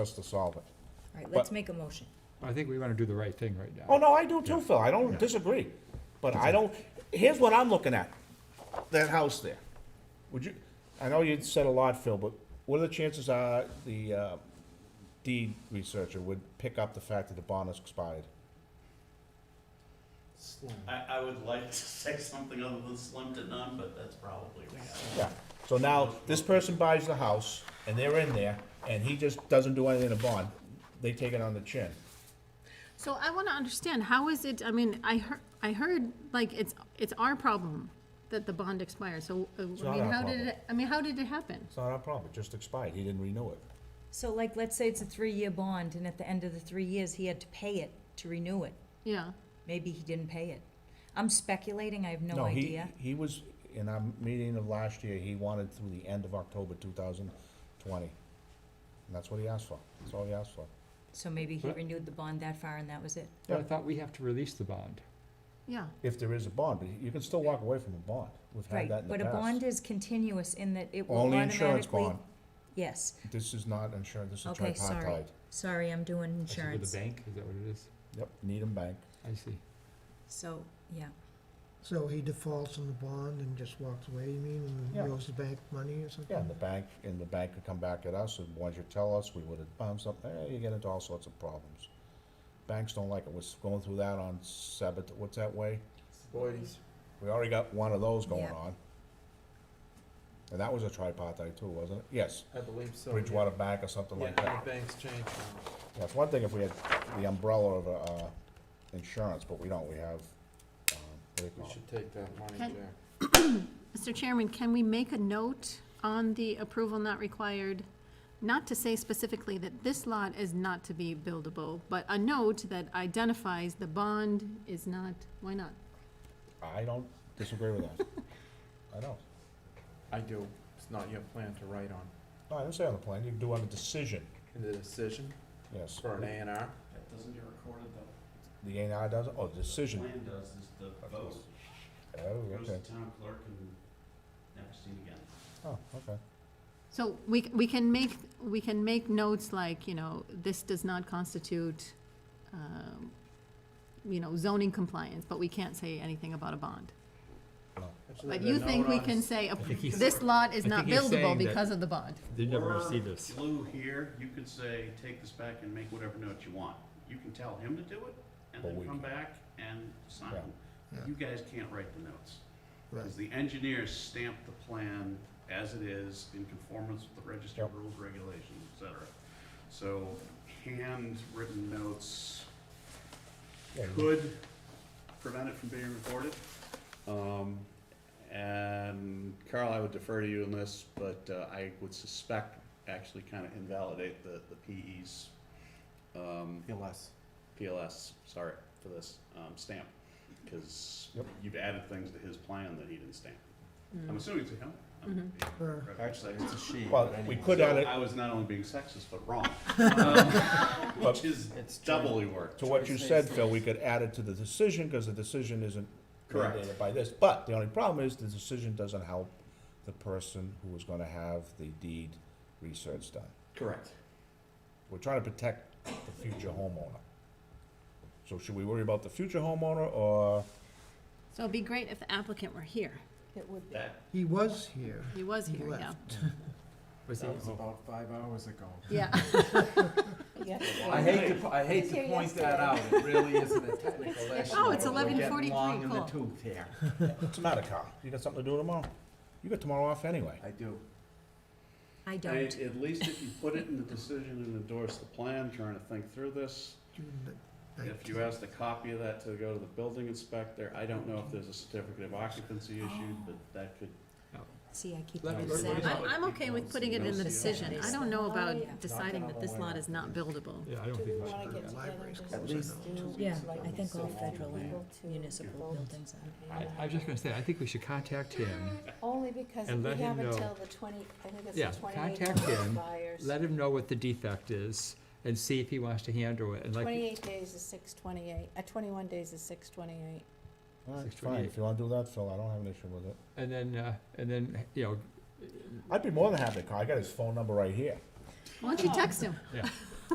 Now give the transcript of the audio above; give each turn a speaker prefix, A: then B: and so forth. A: us to solve it.
B: All right, let's
A: But-
B: make a motion.
C: I think we want to do the right thing right now.
A: Oh, no, I do too, Phil, I don't disagree, but I don't, here's what I'm looking at, that house there. Would you, I know you said a lot, Phil, but what are the chances are the uh, deed researcher would pick up the fact that the bond has expired?
D: I, I would like to say something other than slim to none, but that's probably right.
A: Yeah, so now, this person buys the house, and they're in there, and he just doesn't do anything to bond, they take it on the chin.
E: So I want to understand, how is it, I mean, I heard, I heard, like, it's, it's our problem that the bond expired, so, uh, I
A: not
E: mean,
A: our
E: how did
A: problem.
E: it, I mean, how did it happen?
A: It's not our problem, it just expired, he didn't renew it.
B: So like, let's say it's a three-year bond, and at the end of the three years, he had to pay it to renew it.
E: Yeah,
B: Maybe he didn't pay it. I'm speculating, I have no
A: he-
B: idea.
A: He was, in our meeting of last year, he wanted through the end of October two thousand twenty. And that's what he asked for, that's all he asked for.
B: So maybe he
C: But-
B: renewed the bond that far and that was it.
C: But I thought we have to release the bond.
E: yeah.
A: If there is a bond, but you can still walk away from a bond, we've had
B: Right,
A: that in the
B: but
A: past.
B: a bond is continuous in that it will
A: Only
B: automatically.
A: insurance bond,
B: Yes,
A: this is not insurance, this is
B: okay, sorry.
A: tripartite.
B: Sorry, I'm doing
C: I should go to
B: insurance.
C: the bank, is that what it is?
A: Yep, Needham Bank,
C: I see.
B: So, yeah,
F: So he defaults on the bond and just walks away, you mean,
A: Yeah.
F: and owes the bank money or something?
A: yeah, and the bank, and the bank could come back at us, and once you tell us, we would have found something, eh, you get into all sorts of problems. Banks don't like it, we're going through that on Sabbath, what's that way?
G: Boys.
A: We already got one of those going
B: Yeah.
A: on. And that was a tripartite too, wasn't it? Yes,
G: I believe so. yeah.
A: Bridgewater Bank or something
G: Yeah,
A: like that.
G: the banks changed.
A: That's one thing if we had the umbrella of, uh, insurance, but we don't, we have, um, what do you
G: We
A: call it?
G: should take that money
E: Can-
G: there.
E: Mr. Chairman, can we make a note on the approval not required? Not to say specifically that this lot is not to be buildable, but a note that identifies the bond is not, why not?
A: I don't disagree with that. I don't.
G: I do. It's not your plan to write on.
A: No, I didn't say on the plan, you can do on the decision,
G: In the decision
A: yes.
G: for an A and R,
D: That doesn't get recorded though.
A: The A and R doesn't, oh, the
D: The
A: decision.
D: plan does is the
A: Of
D: vote.
A: course. Oh,
D: Goes to
A: okay,
D: town clerk and never seen again.
A: oh, okay.
E: So we, we can make, we can make notes like, you know, this does not constitute, um, you know, zoning compliance, but we can't say anything about a bond.
G: Actually,
E: But
G: the
E: you think
G: note
E: we
G: on
E: can
G: s-
E: say, a-
C: think he's-
E: this lot is
C: I
E: not
C: think he's
E: buildable
C: saying that-
E: because of the bond?
C: Did
D: Word Flew here, you could say, take this back and make whatever note you want. You can tell him to do it and
A: But
D: then
A: we
D: come back and sign.
A: Yeah.
F: Yeah.
D: You guys can't write the notes.
F: Right.
D: Because the engineers stamp the plan as it is in conformance with the registered
A: Yep.
D: rules, regulations, et cetera. So handwritten notes
A: Yeah, you-
D: could prevent it from being recorded. Um, and Carl, I would defer to you on this, but uh, I would suspect actually kind of invalidate the, the PE's, um,
G: PLS.
D: PLS, sorry for this, um, stamp. Cause
A: Yep.
D: you've added things to his plan that he didn't stamp. I'm assuming it's a him. I'm being
F: Uh,
D: incredibly
G: Actually, it's a
D: sexist.
G: she.
A: Well,
G: but
A: we
G: anyway.
A: could add it,
D: I was not only being sexist, but wrong. Um, Which is
G: It's
D: doubly worked.
A: To what you
G: Choice
A: said,
G: is-
A: Phil, we could add it to the decision, because the decision isn't
D: Correct.
A: mandated by this. But the only problem is, the decision doesn't help the person who is gonna have the deed research done.
D: Correct.
A: We're trying to protect the future homeowner. So should we worry about the future homeowner, or,
E: So it'd be great if the applicant were here. It would
D: That,
F: He was here.
E: He was
F: He
E: here, yeah.
F: left.
C: Was he,
G: That was
C: oh,
G: about five hours ago.
E: Yeah,
G: I hate to, po- I hate to point that out. It really isn't a technical issue.
E: Oh, it's
G: but we're getting
E: 11:43,
G: Long in the
E: cool.
G: tooth here.
A: what's the matter, Carl? You got something to do tomorrow? You got tomorrow off anyway.
G: I do.
B: I
D: I-
B: don't.
D: At least if you put it in the decision and endorse the plan, trying to think through this.
F: June the
D: If you
F: 19th.
D: ask the copy of that to go to the building inspector, I don't know if there's a certificate of occupancy issued, but that could.
B: See, I keep
C: Let me-
B: getting
C: let me-
B: sad.
E: I'm, I'm okay with putting it in the decision. I don't know about deciding that this lot is not buildable.
C: yeah, I don't think we should do that.
F: Libraries
G: At
F: closed, I
G: least
F: know.
G: two weeks
B: Yeah,
G: ago.
B: I think all
G: So,
B: federal
G: yeah.
B: and municipal buildings are.
C: I, I was just gonna say, I think we should contact him,
H: Only because
C: And
H: we
C: let him
H: have
C: know.
H: until the twenty, I think it's
C: Yeah,
H: the twenty-eight
C: contact
H: days
C: him.
H: buyers.
C: let him know what the defect is, and see if he wants to handle it, and like,
H: Twenty-eight days is six twenty-eight, uh, twenty-one days is six twenty-eight.
A: Alright,
C: Six
A: fine,
C: twenty-eight.
A: if you wanna do that, Phil, I don't have an issue with it.
C: and then, uh, and then, you know,
A: I'd be more than happy, Carl, I got his phone number right here.
E: Why don't you text him?
C: yeah,